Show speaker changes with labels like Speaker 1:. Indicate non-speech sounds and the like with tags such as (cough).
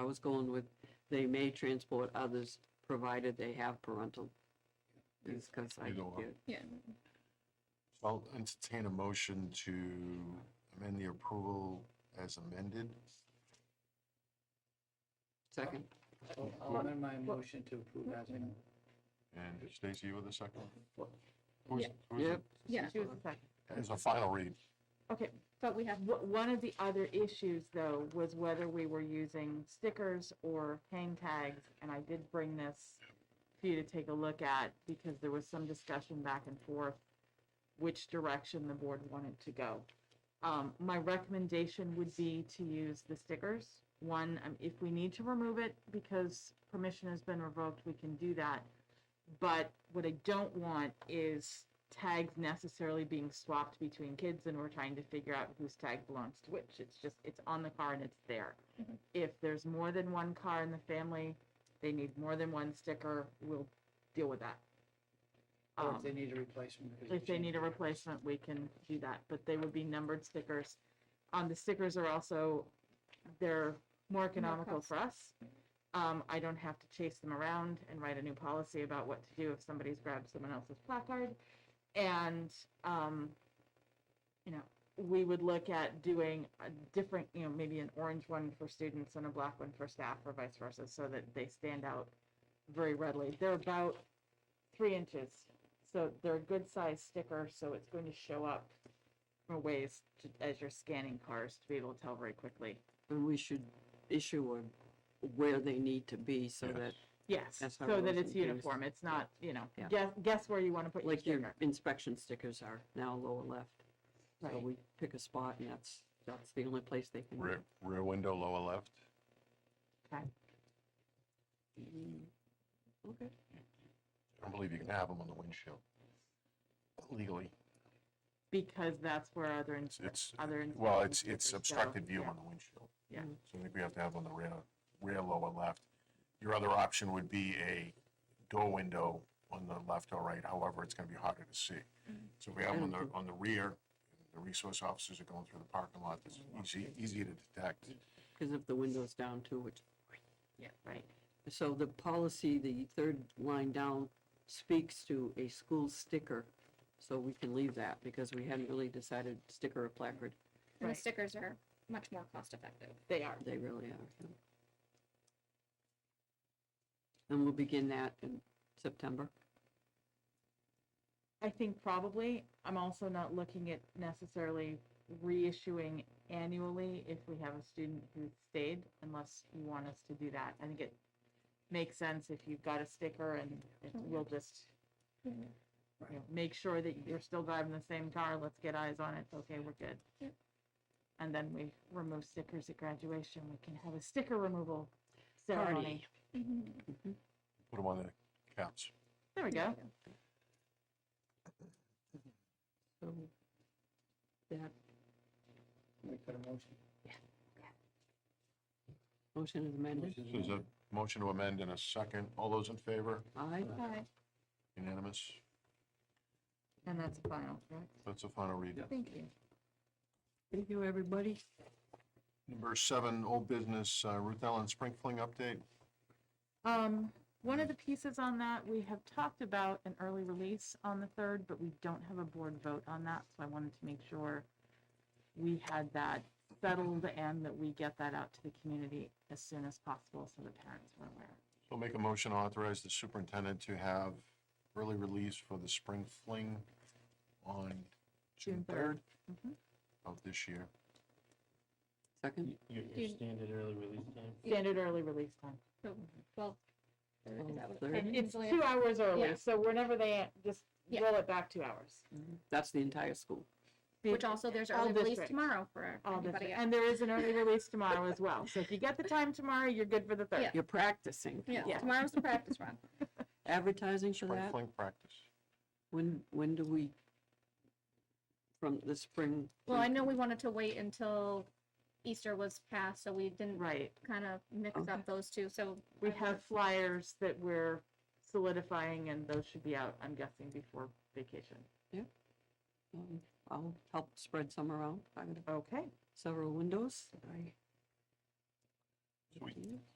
Speaker 1: was going with, they may transport others, provided they have parental. Because I
Speaker 2: You know,
Speaker 1: get,
Speaker 3: Yeah,
Speaker 2: So I'll entertain a motion to amend the approval as amended.
Speaker 1: second,
Speaker 4: I'll
Speaker 5: um,
Speaker 4: I'll amend my motion to approve as amended.
Speaker 2: And Stacy, you were the second? Who was-
Speaker 3: Yeah.
Speaker 2: who was it?
Speaker 1: Yep.
Speaker 3: yeah.
Speaker 5: She was the second.
Speaker 2: As a final read.
Speaker 5: Okay, but we have, wh- one of the other issues, though, was whether we were using stickers or hang tags, and I did bring this for you to take a look at, because there was some discussion back and forth which direction the board wanted to go. Um, my recommendation would be to use the stickers. One, um, if we need to remove it because permission has been revoked, we can do that. But what I don't want is tags necessarily being swapped between kids and we're trying to figure out whose tag belongs to which. It's just, it's on the car and it's there.
Speaker 3: Mhm.
Speaker 5: If there's more than one car in the family, they need more than one sticker, we'll deal with that.
Speaker 4: Or
Speaker 5: Um,
Speaker 4: if they need a replacement. because we
Speaker 5: if they
Speaker 4: changed
Speaker 5: need a
Speaker 4: it.
Speaker 5: replacement, we can do that, but they would be numbered stickers. Um, the stickers are also, they're more economical for us. Um, I don't have to chase them around and write a new policy about what to do if somebody's grabbed someone else's placard. And, um, you know, we would look at doing a different, you know, maybe an orange one for students and a black one for staff or vice versa, so that they stand out very readily. They're about three inches so they're a good size sticker, so it's going to show up for ways to, as you're scanning cars to be able to tell very quickly.
Speaker 1: and we should issue a, where they need to be so
Speaker 2: Yes.
Speaker 1: that,
Speaker 5: Yes,
Speaker 1: That's how
Speaker 5: so
Speaker 1: it was
Speaker 5: that it's
Speaker 1: in Greece.
Speaker 5: uniform. It's not, you know,
Speaker 1: Yeah.
Speaker 5: guess, guess where you want to put your
Speaker 1: like your
Speaker 5: sticker.
Speaker 1: inspection stickers are now lower left. So
Speaker 5: Right.
Speaker 1: we pick a spot and that's, that's the only place they can.
Speaker 2: Rear, rear window, lower left.
Speaker 1: Mm, Okay.
Speaker 2: I don't believe you can have them on the windshield legally.
Speaker 5: Because that's where other, ins-
Speaker 2: It's, it's,
Speaker 5: other.
Speaker 2: well,
Speaker 5: inspection
Speaker 2: it's, it's
Speaker 5: stickers go.
Speaker 2: obstructed view
Speaker 5: Yeah.
Speaker 2: on the windshield.
Speaker 5: Yeah.
Speaker 2: So I think we have to have on the rear, rear lower left. Your other option would be a door window on the left or right, however, it's gonna be harder to see.
Speaker 5: Mm-hmm.
Speaker 2: So if we have
Speaker 1: I
Speaker 2: them on
Speaker 1: don't
Speaker 2: the,
Speaker 1: think-
Speaker 2: on the rear, the resource officers are going through the parking lot, it's easy, easy to detect.
Speaker 1: Because if the window's down too, it's
Speaker 5: Yeah, right.
Speaker 1: So the policy, the third line down, speaks to a school sticker, so we can leave that, because we hadn't really decided sticker or placard,
Speaker 3: and the
Speaker 5: Right.
Speaker 3: stickers are much more cost effective.
Speaker 5: They are.
Speaker 1: they really are. And we'll begin that in September.
Speaker 5: I think probably, I'm also not looking at necessarily reissuing annually if we have a student who stayed, unless you want us to do that. I think it makes sense if you've got a sticker and it- we'll just, you know, make sure that you're still driving the same car, let's get eyes on it, okay, we're good.
Speaker 3: Yep.
Speaker 5: And then we remove stickers at graduation, we can have a sticker removal
Speaker 1: Party.
Speaker 5: ceremony.
Speaker 2: Put them on the caps.
Speaker 5: There we go.
Speaker 1: So that
Speaker 4: We put a motion.
Speaker 1: motion is amended.
Speaker 2: So There's a motion to amend in a second. All those in favor?
Speaker 1: Aye,
Speaker 3: Hi,
Speaker 2: Unanimous?
Speaker 5: And that's final, correct?
Speaker 2: That's a final read.
Speaker 3: thank you.
Speaker 1: thank you, everybody.
Speaker 2: Number seven, old business, uh, Ruth Ellen Sprinkling update.
Speaker 5: Um, one of the pieces on that, we have talked about an early release on the third, but we don't have a board vote on that, so I wanted to make sure we had that settled and that we get that out to the community as soon as possible so the parents were aware.
Speaker 2: So make a motion to authorize the superintendent to have early release for the spring fling on June
Speaker 5: June third.
Speaker 2: third of this year.
Speaker 1: Second,
Speaker 6: Your,
Speaker 3: Do you-
Speaker 6: your standard early release time?
Speaker 5: Standard early release time.
Speaker 3: So, Well, third, is that what-
Speaker 1: Third.
Speaker 3: and
Speaker 5: It's
Speaker 3: usually-
Speaker 5: Oh, two hours
Speaker 3: Yeah.
Speaker 5: early, so whenever they, just roll it back two hours.
Speaker 1: that's the entire school.
Speaker 3: Which also, there's
Speaker 5: all
Speaker 3: early release
Speaker 5: districts.
Speaker 3: tomorrow for
Speaker 5: All this,
Speaker 3: everybody. else.
Speaker 5: and there is an early release tomorrow as well, so if
Speaker 3: (laughs)
Speaker 5: you get the time tomorrow, you're good for the third.
Speaker 3: Yeah.
Speaker 1: You're practicing.
Speaker 3: Yeah,
Speaker 5: Yeah.
Speaker 3: tomorrow's the practice
Speaker 5: (laughs)
Speaker 3: run.
Speaker 1: Advertising for
Speaker 2: Spring
Speaker 1: that?
Speaker 2: fling practice.
Speaker 1: When, when do we? From the spring?
Speaker 3: Well, I
Speaker 1: fling-
Speaker 3: know we wanted to wait until Easter was past, so we didn't
Speaker 5: Right.
Speaker 3: kind of mix
Speaker 1: Okay.
Speaker 3: up those two, so.
Speaker 5: We
Speaker 3: I
Speaker 5: have flyers that we're solidifying and those should be out, I'm guessing, before vacation.
Speaker 1: Um, I'll help spread some around. I've got
Speaker 5: Okay.
Speaker 1: several windows. I
Speaker 2: Sweet.